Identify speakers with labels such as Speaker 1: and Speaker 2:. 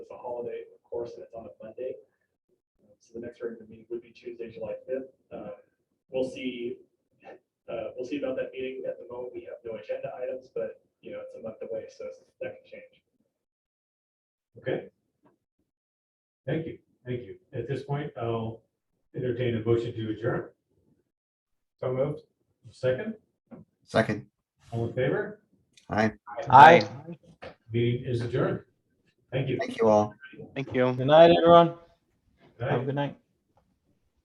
Speaker 1: holiday, of course, and it's on a Monday. So the next regular meeting would be Tuesday, July fifth. Uh, We'll see, uh, we'll see about that meeting. At the moment, we have no agenda items, but, you know, it's a month away, so that can change.
Speaker 2: Okay. Thank you, thank you. At this point, I'll entertain a motion to adjourn. So moved. Second,
Speaker 3: Second.
Speaker 2: all in favor?
Speaker 3: Aye.
Speaker 4: Aye.
Speaker 2: Meeting is adjourned. Thank you.
Speaker 3: Thank you all.
Speaker 4: Thank you.
Speaker 5: Good night, everyone.
Speaker 2: Good
Speaker 4: Have a
Speaker 2: night.
Speaker 4: good night.